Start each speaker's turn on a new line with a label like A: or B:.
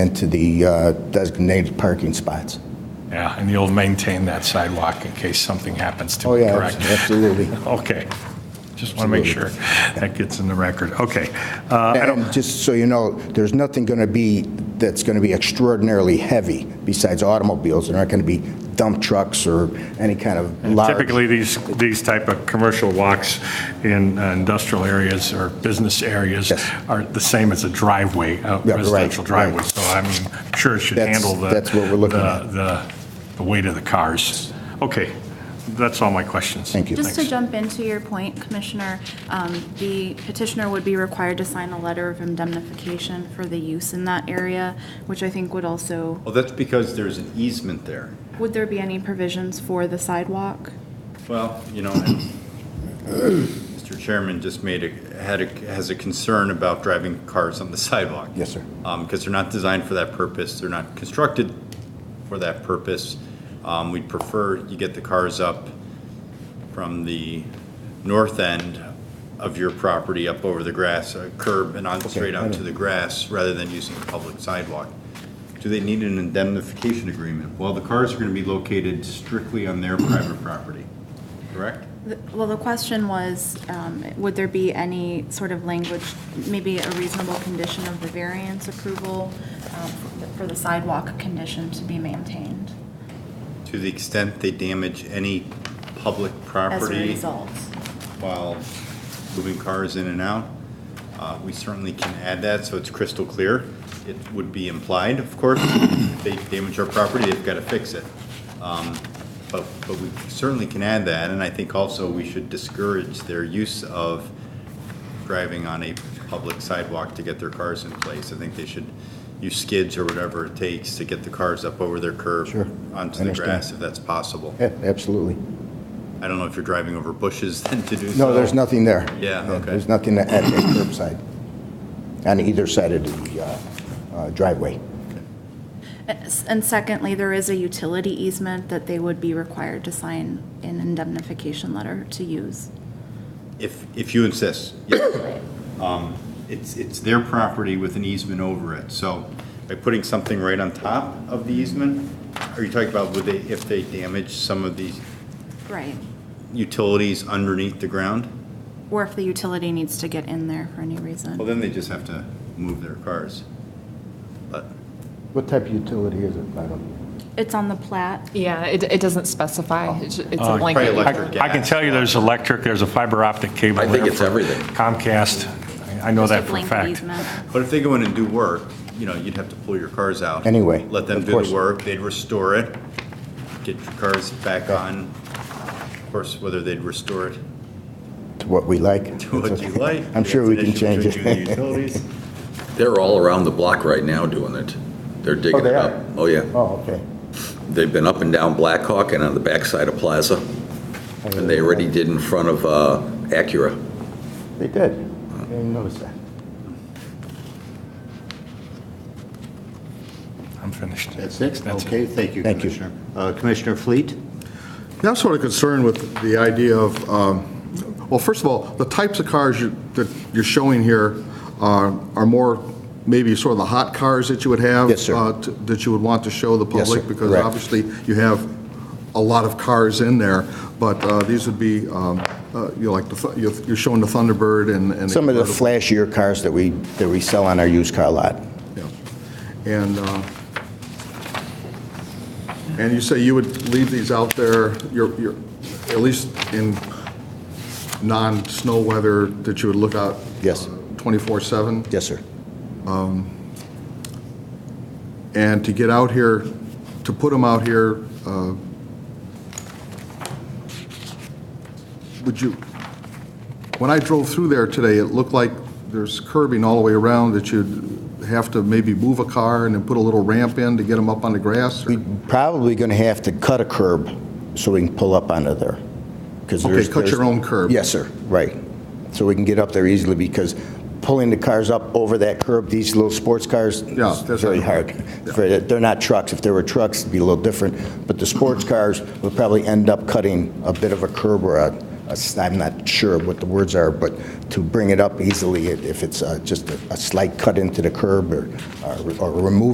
A: into the uh, designated parking spots.
B: Yeah, and you'll maintain that sidewalk in case something happens to
A: Oh,
B: it,
A: yeah,
B: correct?
A: absolutely.
B: Okay. Just want to make sure that gets in the record. Okay. Uh, I don't,
A: And just so you know, there's nothing going to be, that's going to be extraordinarily heavy besides automobiles. There aren't going to be dump trucks or any kind of large.
B: typically, these, these type of commercial walks in uh, industrial areas or business areas
A: Yes.
B: are the same as a driveway, a
A: Yeah, right,
B: residential driveway.
A: right.
B: So I mean, I'm sure it should
A: That's-
B: handle the.
A: that's what we're looking
B: the-
A: at.
B: The, the weight of the cars. Okay. That's all my questions.
A: Thank you.
C: Just to jump into your point, Commissioner, um, the petitioner would be required to sign a letter of indemnification for the use in that area, which I think would also,
D: Well, Oh, that's because there's an easement there.
C: would there be any provisions for the sidewalk?
D: Well, you know, and Mr. Chairman just made a, had a, has a concern about driving cars on the sidewalk.
A: Yes, sir.
D: Because they're not designed for that purpose, they're not constructed for that purpose. Um, We'd prefer you get the cars up from the north end of your property up over the grass, uh, curb and on, straight out to the grass, rather than using the public sidewalk. Do they need an indemnification agreement? Well, the cars are going to be located strictly on their private property, correct?
C: The- Well, the question was, um, would there be any sort of language, maybe a reasonable condition of the variance approval um, for the sidewalk condition to be maintained
D: To the extent they damage any public
C: as a
D: property
C: result?
D: while moving cars in and out, uh, we certainly can add that, so it's crystal clear. It would be implied, of course, if they damage our property, they've got to fix it. Um, But, but we certainly can add that, and I think also we should discourage their use of driving on a public sidewalk to get their cars in place. I think they should use skids or whatever it takes to get the cars up over their curb
A: Sure.
D: onto the
A: Understand.
D: grass, if that's possible.
A: Yeah, absolutely.
D: I don't know if you're driving over bushes then to do so.
A: No, there's nothing there.
D: Yeah, okay.
A: There's nothing at the curbside, on either side of the uh, uh, driveway.
C: And secondly, there is a utility easement that they would be required to sign an indemnification letter to use.
D: If, if you insist, yes. Um, It's, it's their property with an easement over it, so by putting something right on top of the easement, are you talking about would they, if they damage some of these
C: Right.
D: utilities underneath the ground?
C: Or if the utility needs to get in there for any
D: Well,
C: reason.
D: then they just have to move their cars. But
A: What type of utility is it? I don't.
C: It's on the plat.
E: Yeah, it, it doesn't specify. It's it's a
D: probably
E: blanket.
D: electric.
B: I I can tell you there's electric, there's a fiber optic cable.
F: I think
B: there
F: it's
B: for
F: everything.
B: Comcast. I I know
C: Just a
B: that for a
C: blanket
B: fact.
C: easement.
D: But if they go in and do work, you know, you'd have to pull your cars out.
A: Anyway,
D: Let them
A: of
D: do
A: course.
D: the work, they'd restore it, get your cars back on. Of course, whether they'd restore it
A: To what we like.
D: to what you like.
A: I'm sure we can change
D: That's an issue between
A: it.
D: you and the utilities.
F: They're all around the block right now doing it. They're digging
A: they
F: it
A: are?
F: up. Oh, yeah.
A: Oh, okay.
F: They've been up and down Blackhawk and on the backside of Plaza.
A: Oh,
F: And they already did in front of uh, Acura.
A: They did. I didn't notice that.
B: I'm finished.
G: That's it?
B: That's
G: Okay, thank you,
A: Thank you.
G: Commissioner. Uh, Commissioner Fleet?
H: Yeah, I'm sort of concerned with the idea of, um, well, first of all, the types of cars you- that you're showing here are are more maybe sort of the hot cars that you would have.
A: Yes, sir.
H: uh, t- That you would want to show the
A: Yes, sir.
H: public. Because
A: Correct.
H: obviously, you have a lot of cars in there, but uh, these would be, um, uh, you know, like, the th- you're you're showing the Thunderbird and. and
A: Some of the
H: convertible.
A: flashier cars that we, that we sell on our used car lot.
H: Yeah. And, uh, and you say you would leave these out there, you're, you're, at least in non-snow weather, that you would look out?
A: Yes.
H: Twenty-four-seven?
A: Yes, sir.
H: And to get out here, to put them out here, uh, would you, when I drove through there today, it looked like there's curbing all the way around that you'd have to maybe move a car and then put a little ramp in to get them up on the grass? or-
A: Probably going to have to cut a curb so we can pull up onto there. 'cause
H: Okay,
A: there's-
H: cut your
A: there's-
H: own curb.
A: Yes, sir, right. So we can get up there easily because pulling the cars up over that curb, these little sports cars,
H: Yeah,
A: it's
H: that's
A: very
H: right.
A: hard. It's very- They're not trucks. If they were trucks, it'd be a little different. But the sports cars would probably end up cutting a bit of a curb or a, a s- I'm not sure what the words are, but to bring it up easily, if it's uh, just a a slight cut into the curb or, or- or remove